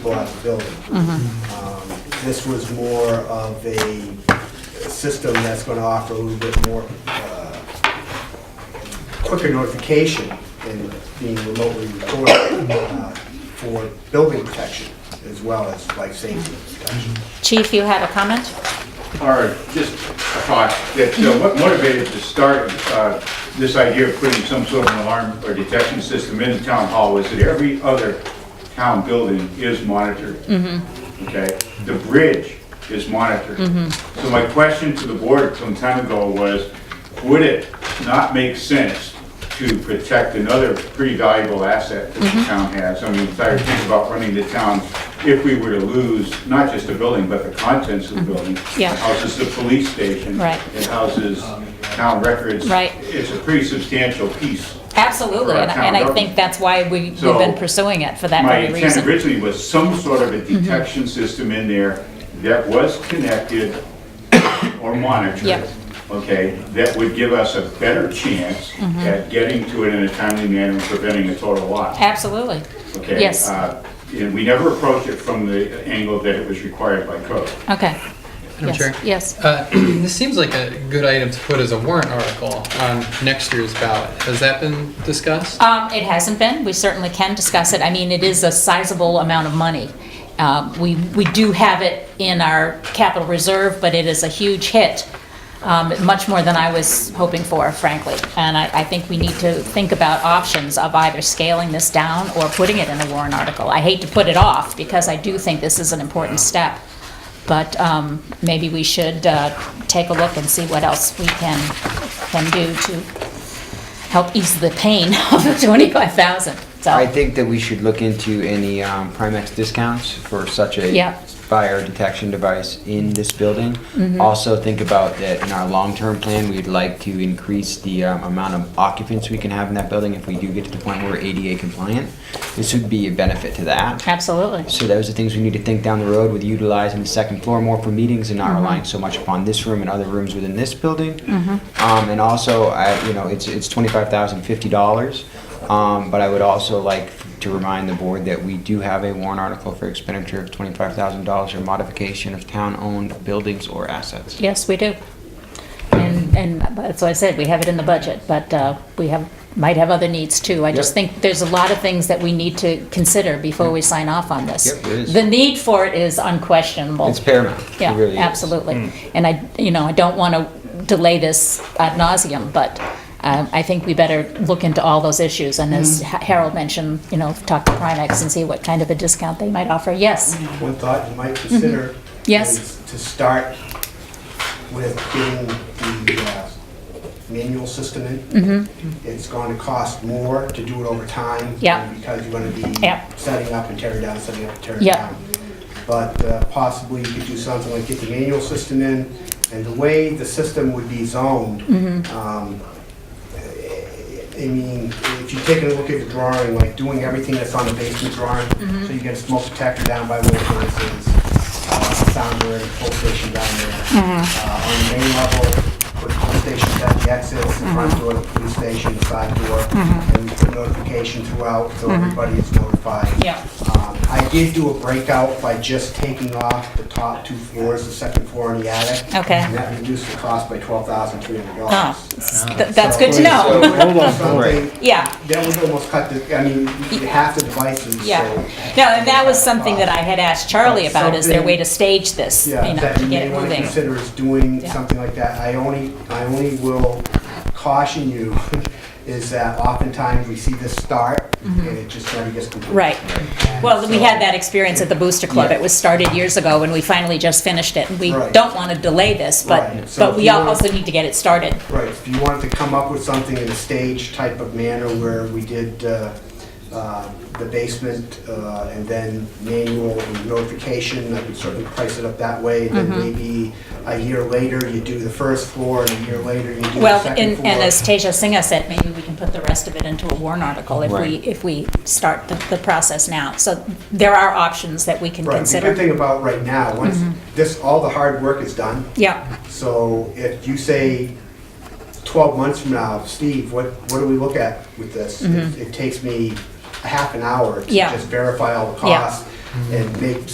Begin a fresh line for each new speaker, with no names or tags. people out of the building. Um, This was more of a system that's going to offer a little bit more uh, quicker notification than being remotely recorded uh, for building protection as well as life safety protection.
Chief, you had a comment?
Or just a thought, that uh, what motivated to start uh, this idea of putting some sort of an alarm or detection system in the town hall is that every other town building is monitored. Okay? The bridge is monitored. So my question to the board some time ago was, would it not make sense to protect another pretty valuable asset that the town has? I mean, if I think about running the town, if we were to lose not just the building, but the contents of the building.
Yeah.
It houses the police station.
Right.
It houses town records.
Right.
It's a pretty substantial piece.
Absolutely,
For our
and
town
and I think
government.
that's why we- we've
So,
been pursuing it for that
My
very Mm-hmm.
intent
reason.
originally was some sort of a detection system in there that was connected or monitored.
Yep.
Okay, that would give us a better chance
Mm-hmm.
at getting to it in a timely manner and preventing a total loss.
Absolutely.
Okay,
Yes,
uh, And we never approached it from the angle that it was required by code.
okay.
Madam
Yes,
Chair?
Yes,
Uh, This seems like a good item to put as a warrant article on next year's ballot. Has that been discussed?
Um, It hasn't been, we certainly can discuss it. I mean, it is a sizable amount of money. Um, We, we do have it in our capital reserve, but it is a huge hit, um, much more than I was hoping for, frankly. And I, I think we need to think about options of either scaling this down or putting it in a warrant article. I hate to put it off, because I do think this is an important step, but um, maybe we should uh, take a look and see what else we can, can do to help ease the pain of the 25,000.
I
So,
think that we should look into any um, Primex discounts for such a
Yeah.
fire detection device in this building.
Mm-hmm.
Also, think about that in our long-term plan, we'd like to increase the um, amount of occupants we can have in that building if we do get to the point where we're ADA compliant. This would be a benefit to that.
absolutely.
So those are things we need to think down the road with utilizing the second floor more for meetings and
Mm-hmm.
not relying so much upon this room and other rooms within this building.
Mm-hmm.
Um, and also, I, you know, it's, it's twenty-five thousand fifty dollars. Um, but I would also like to remind the board that we do have a warrant article for expenditure of twenty-five thousand dollars or modification of town-owned buildings or assets.
Yes, we do. And, and that's why I said, we have it in the budget, but uh, we have, might have other needs too. I just
Yep.
think there's a lot of things that we need to consider before we sign off on this.
Yep, there is.
The need for it is unquestionable.
It's paramount. It
Yeah,
really is.
absolutely. And I, you know, I don't want to delay this ad nauseum, but um, I think we better look into all those issues. And
Hmm.
as Harold mentioned, you know, talk to Primex and see what kind of a discount they might offer. Yes,
One thought you might consider
Mm-hmm. Yes.
is to start with getting the uh, manual system in. It's going to cost more to do it over time.
Mm-hmm. Yeah.
Because you're going to be
Yeah.
setting up and tearing down, setting up and tearing
Yeah.
down. But uh, possibly you could do something like get the manual system in, and the way the system would be zoned,
Mm-hmm.
um, I mean, if you take a look at the drawing, like doing everything that's on the basement drawing,
Mm-hmm.
so you get a smoke detector down by where it is, uh, sound already, full station down there.
Mm-hmm.
Uh, on the main level, put the stations at the exits, the
Mm-hmm.
front door, the police station, the side door, and we put notification throughout, so everybody is notified.
Mm-hmm. Yeah.
Um, I did do a breakout by just taking off the top two floors, the second floor and the attic.
Okay.
And that reduced the cost by twelve thousand three hundred
Ah,
dollars. Uh,
th- that's good to know.
Hold on,
Right.
Yeah.
That would almost cut the, I mean, half the devices, so.
Yeah, no, and that was something that I had asked Charlie about, is there a way to stage this, you
Yeah,
know,
that
to
you may
get it
want to
moving?
consider is doing
Yeah.
something like that. I only, I only will caution you is that oftentimes we see this start and it just never gets completed.
Mm-hmm. Right.
And
Well, we
so-
had that experience at the Booster Club, it was started years ago, and we finally just finished it, and we
Right.
don't want to delay this,
Right.
but,
So
but
if
we
you want-
also need to get it started.
Right, if you wanted to come up with something in a stage type of manner where we did uh, uh, the basement uh, and then manual and notification, I could certainly price it up that way. And then
Mm-hmm.
maybe a year later, you do the first floor, and a year later, you do the
Well,
second
and,
floor.
and as Teja Singha said, maybe we can put the rest of it into a warrant article if we,
Right.
if we start the, the process now. So there are options that we can
Right, the good
consider.
thing about right now, once
Mm-hmm.
this, all the hard work is done,
Yeah.
so if you say 12 months from now, Steve, what, what do we look at with this? It it takes me a half an hour to
Mm-hmm. Yeah.
just verify all the
Yeah.
costs. and make